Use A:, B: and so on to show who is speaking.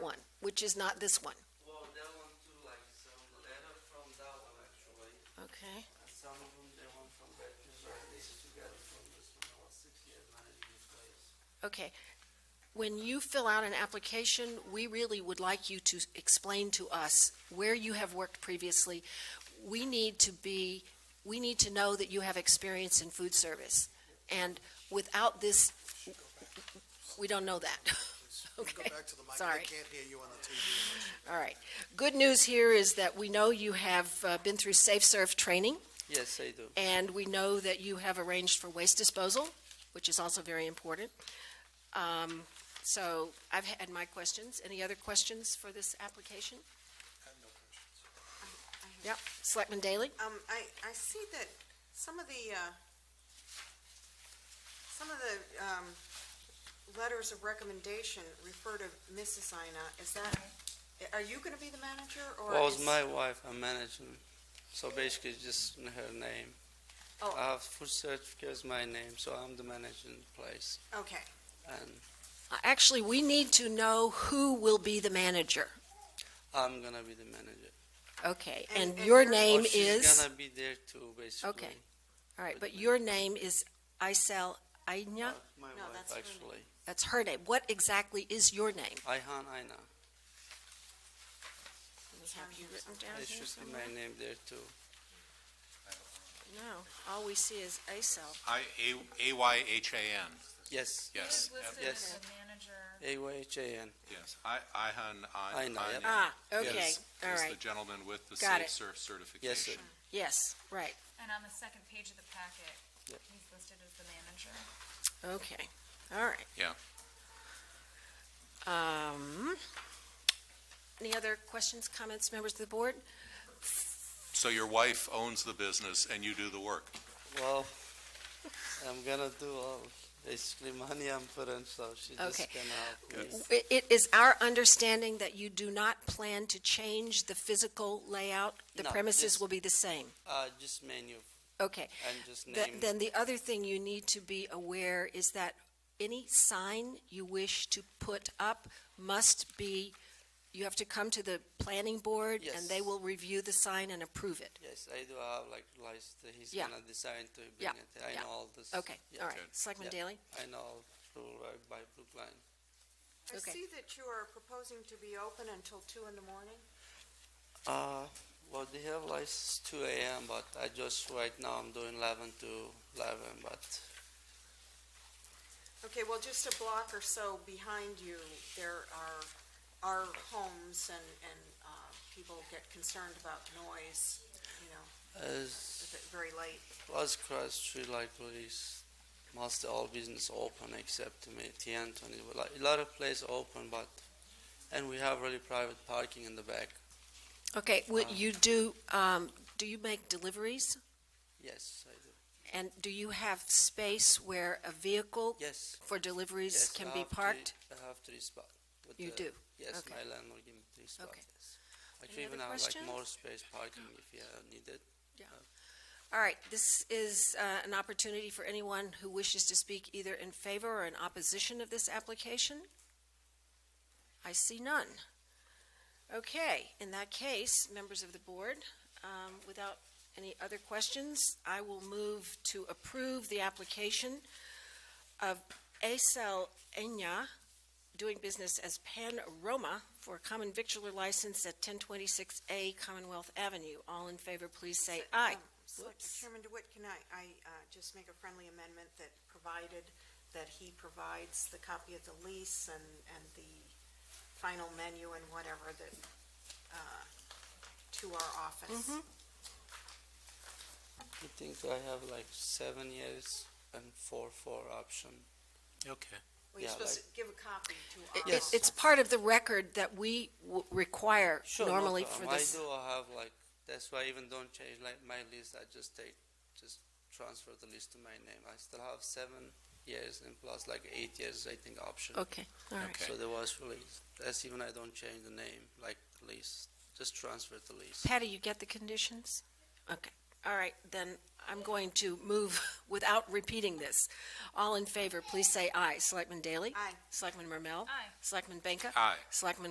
A: one, which is not this one.
B: Well, that one too, like some letter from that one actually,
A: Okay.
B: and some of them, they want from that preserve, they used to get it from this one, I was six years managing this place.
A: Okay. When you fill out an application, we really would like you to explain to us where you have worked previously. We need to be, we need to know that you have experience in food service. And without this, we don't know that.
C: Go
A: Okay,
C: back to the mic.
A: sorry.
C: They can't hear you on the TV.
A: All right. Good news here is that we know you have uh, been through Safe Serve training.
B: Yes, I do.
A: And we know that you have arranged for waste disposal, which is also very important. Um, So I've had my questions. Any other questions for this application?
C: I have no questions.
A: Yep. Selectman Daley?
D: Um, I, I see that some of the, uh, some of the, um, letters of recommendation refer to Mrs. Ina. Is that, are you gonna be the manager or?
B: Well, it's
D: is-
B: my wife I'm managing, so basically it's just in her name.
D: Oh.
B: I have food certificate is my name, so I'm the managing place,
D: Okay,
B: and
A: Uh, Actually, we need to know who will be the manager.
B: I'm gonna be the manager.
A: Okay,
D: And-
A: and
D: and
A: your
D: your-
A: name
B: Or She's
A: is,
B: gonna be there too, basically.
A: all right, but your name is Isel Aina?
B: Uh, My
D: No,
B: wife,
D: that's her name.
B: actually.
A: That's her name. What exactly is your name?
B: Ayhan Aina.
A: Have you written down
B: It
A: here
B: should be
A: somewhere?
B: my name there too.
A: No, all we see is Isel.
E: I, A, A-Y-H-A-N,
B: Yes,
E: yes,
B: Yes.
F: the manager.
B: A-Y-H-A-N.
E: yes. I, Ihan, I.
B: Ihan, yep.
E: Ihan
A: Ah, okay,
E: is-
A: all
E: Is
A: right.
E: the gentleman with the
A: Got
E: Safe
A: it.
E: Surf
B: Yes, sir.
E: certification.
A: Yes, right,
F: And on the second page of the packet,
B: Yep.
F: he's listed as the manager.
A: okay, all right.
E: Yeah.
A: Um, any other questions, comments, members of the board?
E: So your wife owns the business and you do the work.
B: Well, I'm gonna do all, basically money I'm putting, so she just
A: Okay.
B: gonna help me.
A: It, it is our understanding that you do not plan to change the physical layout? The
B: No,
A: premises
B: just-
A: will be the same?
B: Uh, just menu
A: Okay.
B: and just
A: Th-
B: name.
A: Then the other thing you need to be aware is that any sign you wish to put up must be, you have to come to the planning board, and they
B: Yes.
A: will review the sign and approve it.
B: Yes, I do have like list, he's
A: Yeah.
B: gonna design to bring
A: Yeah,
B: it, I
A: yeah.
B: know all this.
A: Okay,
B: Yeah,
A: all right.
E: good.
A: Selectman
B: Yeah.
A: Daley?
B: I know, rule right by Brookline.
D: I
A: Okay.
D: see that you are proposing to be open until two in the morning.
B: Uh, well, they have license two AM, but I just, right now I'm doing eleven to eleven, but
D: Okay, well, just a block or so behind you, there are, are homes and, and, uh, people get concerned about noise, you know,
B: as
D: if it's very late.
B: Las Cross Street like police, most all business open except to me, T Anthony, like, a lot of place open, but, and we have really private parking in the back,
A: Okay, would
B: Um,
A: you do, um, do you make deliveries?
B: yes, I do,
A: And do you have space where a vehicle
B: yes.
A: for deliveries
B: yes,
A: can
B: I
A: be
B: have three-
A: parked?
B: I have three spots.
A: You do?
B: Yes,
A: Okay.
B: my landlord gave me three spots.
A: Okay.
B: I
A: Any
B: could even
A: other
B: have like
A: questions?
B: more space parking if you uh, need it.
A: All right, this is uh, an opportunity for anyone who wishes to speak either in favor or in opposition of this application. I see none. Okay, in that case, members of the board, um, without any other questions, I will move to approve the application of Acel Enya, doing business as Pan Roma, for a common victular license at 1026A Commonwealth Avenue. All in favor, please say aye.
D: Um, Selectman
A: Whoops.
D: Chairman DeWitt, can I, I uh, just make a friendly amendment that provided that he provides the copy of the lease and, and the final menu and whatever that, uh, to our office?
A: Mm-hmm.
B: I think I have like seven years and four, four option.
E: Okay.
D: Well, you're
B: Yeah,
D: supposed to give a copy to
A: It-
D: our
A: it-
B: Yes.
D: office.
A: It's part of the record that we w- require
B: Sure, no
A: normally for
B: problem.
A: this.
B: I do have like, that's why I even don't change like my list, I just take, just transfer the list to my name. I still have seven years and plus like eight years, I think, option.
A: Okay, all right.
E: Okay.
B: So there was really, that's even I don't change the name, like lease, just transfer the lease.
A: Patty, you get the conditions? Okay, all right, then I'm going to move without repeating this. All in favor, please say aye. Selectman Daley?
D: Aye.
A: Selectman Marmel?
F: Aye.
A: Selectman Benka?
E: Aye.
A: Selectman